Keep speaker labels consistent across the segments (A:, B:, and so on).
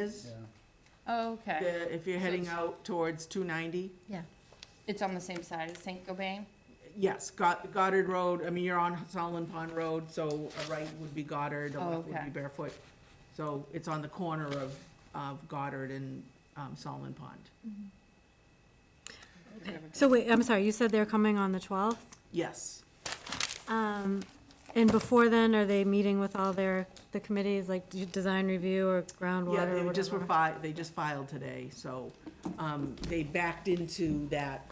A: is,
B: Oh, okay.
A: the- if you're heading out towards two ninety.
C: Yeah.
B: It's on the same side as St. Gobain?
A: Yes, Got- Goddard Road, I mean, you're on Solomon Pond Road, so a right would be Goddard, a
B: Oh,
A: left would
B: okay.
A: be Barefoot. So it's on the corner of, of Goddard and, um, Solomon Pond.
C: So wait, I'm sorry, you said they're coming on the 12th?
A: Yes,
C: Um, And before then, are they meeting with all their, the committees, like d- design review or
A: yeah,
C: groundwater or
A: they just were fi,
C: whatever?
A: they just filed today, so, um, they backed into that,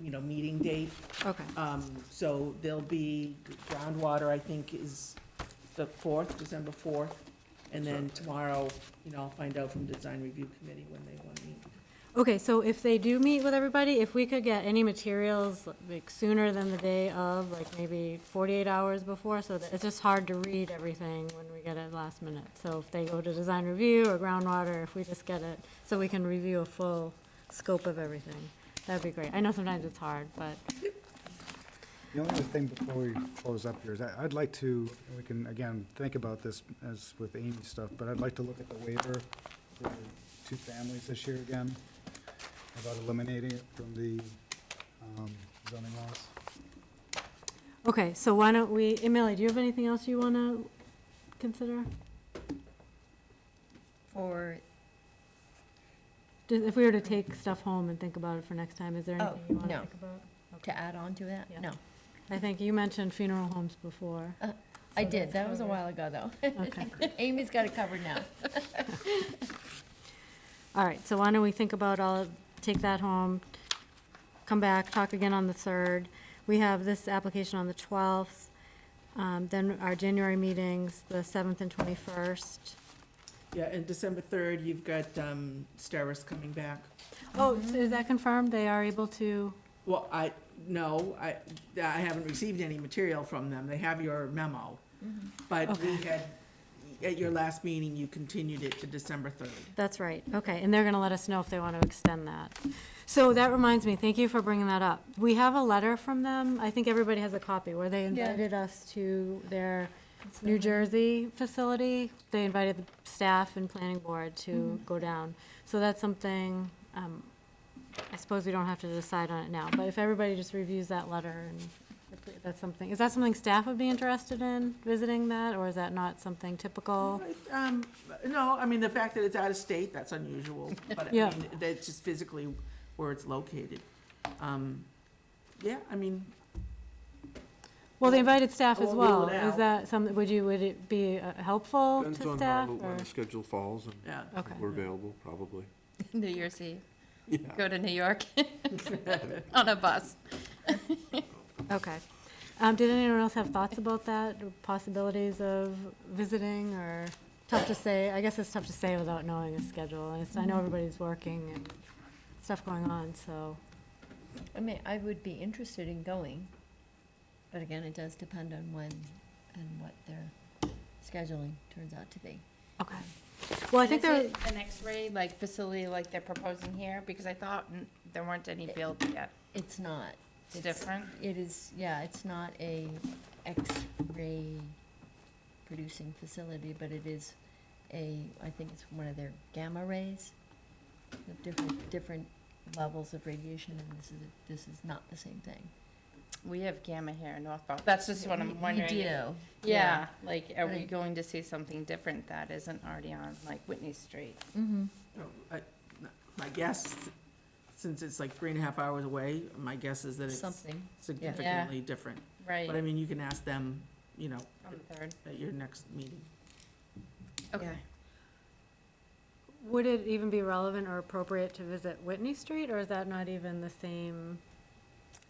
A: you know, meeting date.
C: Okay,
A: Um, so there'll be groundwater, I think, is the fourth, December fourth. And then tomorrow, you know, I'll find out from design review committee when they want to meet.
C: okay, so if they do meet with everybody, if we could get any materials like sooner than the day of, like maybe 48 hours before, so that, it's just hard to read everything when we get it last minute. So if they go to design review or groundwater, if we just get it, so we can review a full scope of everything, that'd be great. I know sometimes it's hard, but.
D: The only other thing before we close up here is I- I'd like to, and we can, again, think about this as with Amy's stuff, but I'd like to look at the waiver for the two families this year again, about eliminating it from the um, zoning laws.
C: Okay, so why don't we, Emily, do you have anything else you want to consider?
E: For,
C: Just If we were to take stuff home and think about it for next time, is there
E: Oh,
C: anything you want to
E: no.
C: think about?
E: to add on to that?
C: Yeah.
E: No.
C: I think you mentioned funeral homes before.
E: Uh, I
C: So
E: did,
C: that's
E: that was a
C: covered.
E: while ago, though.
C: Okay.
E: Amy's got it covered now.
C: All right, so why don't we think about all, take that home, come back, talk again on the 3rd. We have this application on the 12th, um, then our January meetings, the 7th and 21st.
A: Yeah, and December third, you've got, um, Steris coming back.
C: Oh, so is that confirmed? They are able to,
A: Well, I, no, I, I haven't received any material from them. They have your memo.
B: Mm-hmm.
A: But we had, at your last meeting, you continued it to December third.
C: that's right, okay, and they're going to let us know if they want to extend that. So that reminds me, thank you for bringing that up. We have a letter from them, I think everybody has a copy, where they
E: Yeah.
C: invited us to their New Jersey facility. They invited the staff and planning board to go down. So that's something, um, I suppose we don't have to decide on it now, but if everybody just reviews that letter and if that's something, is that something staff would be interested in, visiting that, or is that not something typical?
A: Um, no, I mean, the fact that it's out of state, that's unusual, but I
C: Yeah.
A: mean, that's just physically where it's located. Um, yeah, I mean,
C: Well, they invited staff
A: I
C: as
A: won't rule
C: well.
A: it
C: Is
A: out.
C: that something, would you, would it be uh, helpful
F: Depends
C: to
F: on how,
C: staff?
F: the-
C: or-
F: when the schedule falls and
A: yeah.
C: Okay.
F: if we're available, probably.
B: New Year's Eve.
F: Yeah.
B: Go to New York on a bus.
C: Okay. Um, Did anyone else have thoughts about that, or possibilities of visiting, or tough to say? I guess it's tough to say without knowing a schedule, and it's- I know everybody's working and stuff going on, so.
E: I mean, I would be interested in going, but again, it does depend on when and what their scheduling turns out to be.
C: Okay. Well, I think there,
B: Is it An X-ray, like, facility like they're proposing here, because I thought n- there weren't any built yet.
E: It's not.
B: It's different?
E: It is, yeah, it's not a X-ray producing facility, but it is a, I think it's one of their gamma rays. The different, different levels of radiation, and this is, this is not the same thing.
B: We have Gamma here in Northborough. That's just what
E: You-
B: I'm wondering.
E: You
B: if-
E: do.
B: Yeah, like, are we
E: Right.
B: going to see something different that isn't already on, like, Whitney Street?
E: Mm-hmm.
A: No, I- My guess, since it's like three and a half hours away, my guess is that it's
E: Something.
A: significantly different. But I
B: Right,
A: mean, you can ask them, you know,
B: on the third.
A: at your next meeting.
B: Okay.
C: would it even be relevant or appropriate to visit Whitney Street, or is that not even the same?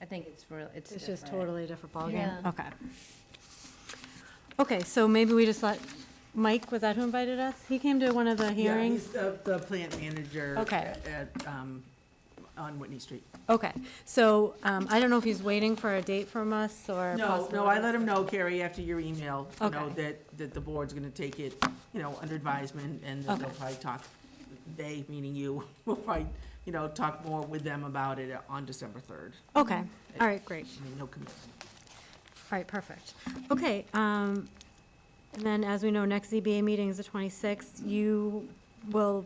B: I think it's real, it's
C: It's just
B: different.
C: totally a different ballgame?
E: Yeah.
C: Okay. Okay, so maybe we just let, Mike, was that who invited us? He came to one of the hearings?
A: Yeah, he's the, the plant manager.
C: Okay.
A: At, um, on Whitney Street.
C: Okay, so um, I don't know if he's waiting for a date from us or
A: No,
C: possible.
A: no, I let him know, Carrie, after your email, you know,
C: Okay.
A: that, that the board's gonna take it, you know, under advisement, and that they'll
C: Okay.
A: probably talk, they, meaning you, will probably, you know, talk more with them about it on December third.
C: Okay, all right, great,
A: I mean, no commitment.
C: all right, perfect. Okay, um, and then as we know, next ZBA meeting is the 26th. You will